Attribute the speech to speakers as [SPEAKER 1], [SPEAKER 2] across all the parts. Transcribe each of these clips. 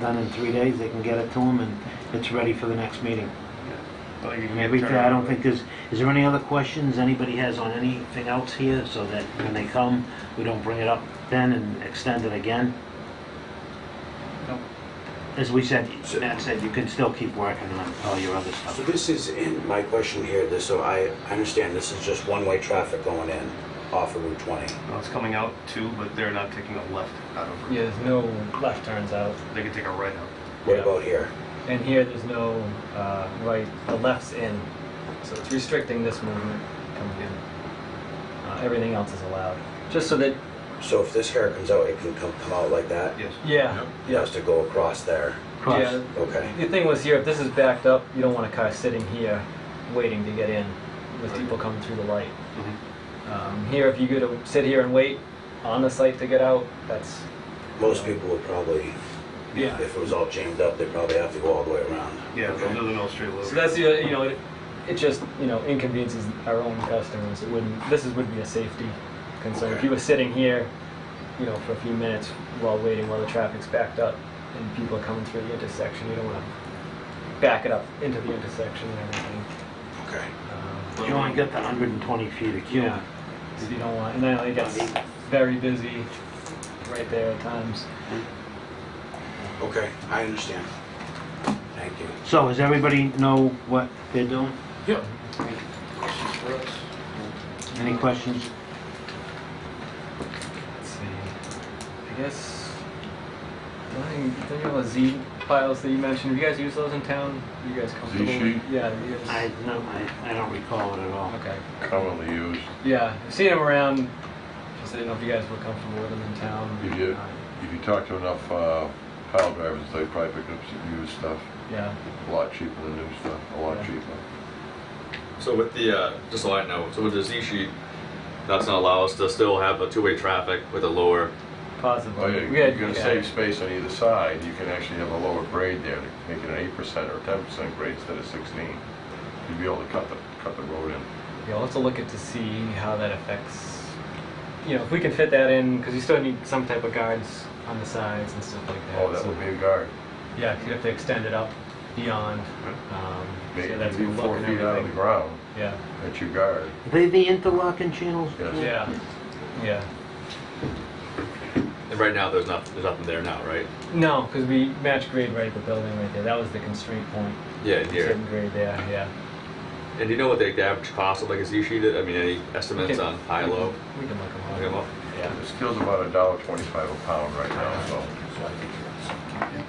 [SPEAKER 1] done in three days, they can get it to them, and it's ready for the next meeting.
[SPEAKER 2] Well, you can
[SPEAKER 1] Every,
[SPEAKER 2] turn
[SPEAKER 1] I don't
[SPEAKER 2] around.
[SPEAKER 1] think there's, is there any other questions anybody has on anything else here, so that when they come, we don't bring it up then and extend it again?
[SPEAKER 2] Nope.
[SPEAKER 1] As we said,
[SPEAKER 3] So-
[SPEAKER 1] Matt said, you can still keep working on all your other
[SPEAKER 3] So
[SPEAKER 1] stuff.
[SPEAKER 3] this is in, my question here, this, so I I understand this is just one-way traffic going in off of Route 20.
[SPEAKER 2] Well, it's coming out too, but they're not taking a left out of
[SPEAKER 4] Yeah,
[SPEAKER 2] it.
[SPEAKER 4] there's no left turns out.
[SPEAKER 2] They can take a right out.
[SPEAKER 3] What
[SPEAKER 4] Yeah.
[SPEAKER 3] about here?
[SPEAKER 4] And here, there's no uh, right, the left's in. So it's restricting this movement coming in. Uh, Everything else is allowed. Just so that,
[SPEAKER 3] So if this hair comes out, it can come come out like that?
[SPEAKER 2] Yes.
[SPEAKER 4] yeah,
[SPEAKER 3] It has to go across there?
[SPEAKER 1] Cross.
[SPEAKER 4] yeah.
[SPEAKER 3] Okay.
[SPEAKER 4] The thing was here, if this is backed up, you don't want a car sitting here waiting to get in with
[SPEAKER 2] Right.
[SPEAKER 4] people coming through the light.
[SPEAKER 2] Mhm.
[SPEAKER 4] Um, Here, if you go to sit here and wait on the site to get out, that's,
[SPEAKER 3] Most people would probably,
[SPEAKER 4] Yeah.
[SPEAKER 3] if it was all jammed up, they'd probably have to go all the way around.
[SPEAKER 2] Yeah, go
[SPEAKER 3] Okay.
[SPEAKER 2] to the Mill Street loop.
[SPEAKER 4] so that's, the you know, it it just, you know, inconveniences our own customers. It wouldn't, this is, would be a safety concern. If
[SPEAKER 3] Okay.
[SPEAKER 4] you were sitting here, you know, for a few minutes while waiting while the traffic's backed up and people are coming through the intersection, you don't want to back it up into the intersection and everything.
[SPEAKER 3] Okay.
[SPEAKER 4] Um,
[SPEAKER 1] You only got the hundred and twenty feet of queue.
[SPEAKER 4] Yeah, if you don't want, and then it gets very busy right there at times.
[SPEAKER 3] Okay, I understand. Thank you.
[SPEAKER 1] So, does everybody know what they're doing?
[SPEAKER 5] Yep.
[SPEAKER 1] Any questions?
[SPEAKER 4] Let's see, I guess, the only thing, the thing about Z files that you mentioned, have you guys used those in town? Are you guys comfortable? with-
[SPEAKER 5] sheet?
[SPEAKER 4] Yeah, you guys-
[SPEAKER 1] I, no, I, I don't recall it at all.
[SPEAKER 4] Okay,
[SPEAKER 5] Commonly used.
[SPEAKER 4] yeah, I've seen them around, just didn't know if you guys were comfortable with them in town.
[SPEAKER 5] If you, if you talk to enough uh, pile drivers, they probably pick up some used stuff.
[SPEAKER 4] Yeah,
[SPEAKER 5] A lot cheaper than new stuff, a lot
[SPEAKER 4] Yeah.
[SPEAKER 5] cheaper.
[SPEAKER 6] So with the, uh, just so I know, so with the Z sheet, that's gonna allow us to still have a two-way traffic with a lower,
[SPEAKER 4] possibly.
[SPEAKER 5] Oh, yeah,
[SPEAKER 4] We
[SPEAKER 5] you're
[SPEAKER 4] had- uh,
[SPEAKER 5] gonna
[SPEAKER 4] yeah.
[SPEAKER 5] save space on either side, you can actually have a lower grade there, to make it an eight percent or ten percent grade instead of sixteen. You'd be able to cut the, cut the road in.
[SPEAKER 4] Yeah, we'll have to look at to see how that affects, you know, if we can fit that in, because you still need some type of guards on the sides and stuff like that.
[SPEAKER 5] Oh, that
[SPEAKER 4] so-
[SPEAKER 5] would be a guard.
[SPEAKER 4] Yeah, 'cause you have to extend it up beyond, um,
[SPEAKER 5] Make
[SPEAKER 4] so
[SPEAKER 5] it
[SPEAKER 4] that's
[SPEAKER 5] be
[SPEAKER 4] gonna look
[SPEAKER 5] four
[SPEAKER 4] and
[SPEAKER 5] feet out of the
[SPEAKER 4] everything.
[SPEAKER 5] ground,
[SPEAKER 4] Yeah,
[SPEAKER 5] that's your guard.
[SPEAKER 1] Are they the interlocking channels?
[SPEAKER 5] Yes.
[SPEAKER 4] yeah, yeah.
[SPEAKER 6] and right now, there's not, there's nothing there now, right?
[SPEAKER 4] No, because we match grade right at the building right there. That was the constraint point.
[SPEAKER 6] Yeah, in here.
[SPEAKER 4] Certain grade there, yeah.
[SPEAKER 6] And do you know what the the average cost of like a Z sheet is? I mean, any estimates
[SPEAKER 4] Okay. Mm-hmm.
[SPEAKER 6] on high, low?
[SPEAKER 4] We can look them up.
[SPEAKER 6] Look 'em up.
[SPEAKER 4] Yeah,
[SPEAKER 5] The steel's about a dollar twenty-five a pound right now, so,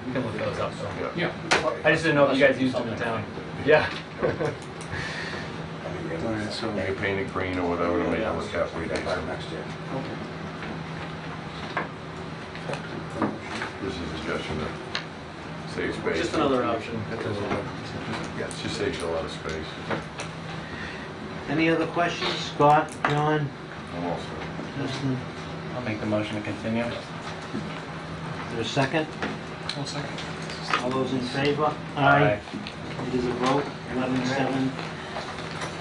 [SPEAKER 4] we can look those up though.
[SPEAKER 5] yeah. Yeah.
[SPEAKER 4] I just didn't know if you guys used them in town. Yeah.
[SPEAKER 3] Alright, so.
[SPEAKER 5] You can paint it green or whatever to make it look halfway decent.
[SPEAKER 3] Next year.
[SPEAKER 5] This is a suggestion to save space.
[SPEAKER 4] Just another option.
[SPEAKER 5] Yeah, it just saves you a lot of space.
[SPEAKER 1] Any other questions? Scott, John,
[SPEAKER 5] I'm all set.
[SPEAKER 1] Justin?
[SPEAKER 7] I'll make the motion to continue.
[SPEAKER 1] Is there a second?
[SPEAKER 7] One second.
[SPEAKER 1] All those in favor?
[SPEAKER 7] Aye.
[SPEAKER 1] It is a vote, eleven seven.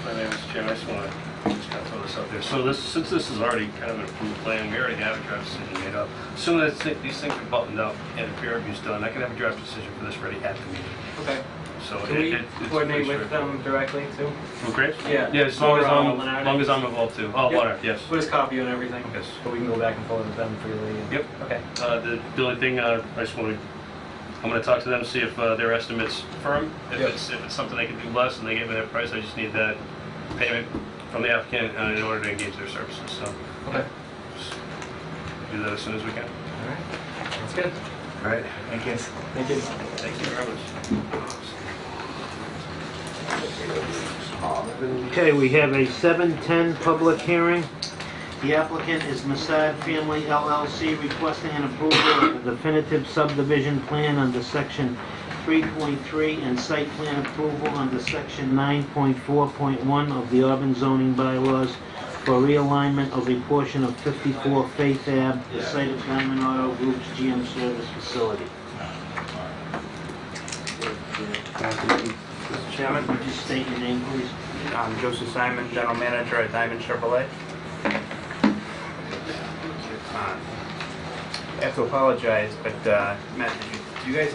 [SPEAKER 8] My name is Jim, I just want to just kind of throw this out there. So this, since this is already kind of an approved plan, we already have a draft decision made up. As Soon as thi- these things are buttoned up and the peer review's done, I can have a draft decision for this ready at the meeting.
[SPEAKER 4] Okay.
[SPEAKER 8] So
[SPEAKER 4] Can
[SPEAKER 8] it-
[SPEAKER 4] we
[SPEAKER 8] it- it's
[SPEAKER 4] coordinate
[SPEAKER 8] pretty
[SPEAKER 4] with
[SPEAKER 8] straightforward.
[SPEAKER 4] them directly too?
[SPEAKER 8] From Graves?
[SPEAKER 4] Yeah.
[SPEAKER 8] Yeah, as long as
[SPEAKER 4] Or, uh,
[SPEAKER 8] I'm,
[SPEAKER 4] Lenardi?
[SPEAKER 8] as long as I'm involved too. Oh,
[SPEAKER 4] Yep.
[SPEAKER 8] water, yes.
[SPEAKER 4] We'll just copy you and everything.
[SPEAKER 8] Yes.
[SPEAKER 4] But we can go back and forth with them freely. and-
[SPEAKER 8] Yep.
[SPEAKER 4] Okay.
[SPEAKER 8] Uh, The the only thing, uh, I just want to, I'm going to talk to them, see if uh, their estimate's firm. If
[SPEAKER 4] Yep.
[SPEAKER 8] it's, if it's something they can do less and they give me their price, I just need that payment from the applicant uh, in order to engage their services, so.
[SPEAKER 4] Okay.
[SPEAKER 8] just Do that as soon as we can.
[SPEAKER 4] All right. That's good.
[SPEAKER 3] All right.
[SPEAKER 7] Thank you.
[SPEAKER 4] Thank you.
[SPEAKER 8] Thank you very much.
[SPEAKER 1] Okay, we have a seven ten public hearing. The applicant is Masad Family LLC requesting an approval of the definitive subdivision plan under section three point three and site plan approval under section nine point four point one of the Auburn zoning bylaws for realignment of a portion of fifty-four Faith Ave, the site of Diamond Auto Group's GM service facility.
[SPEAKER 9] Mr. Chairman,
[SPEAKER 1] Would you state your name, please?
[SPEAKER 9] I'm Joseph Simon, General Manager at Diamond Chevrolet. I have to apologize, but, uh, Matt, did you, do you guys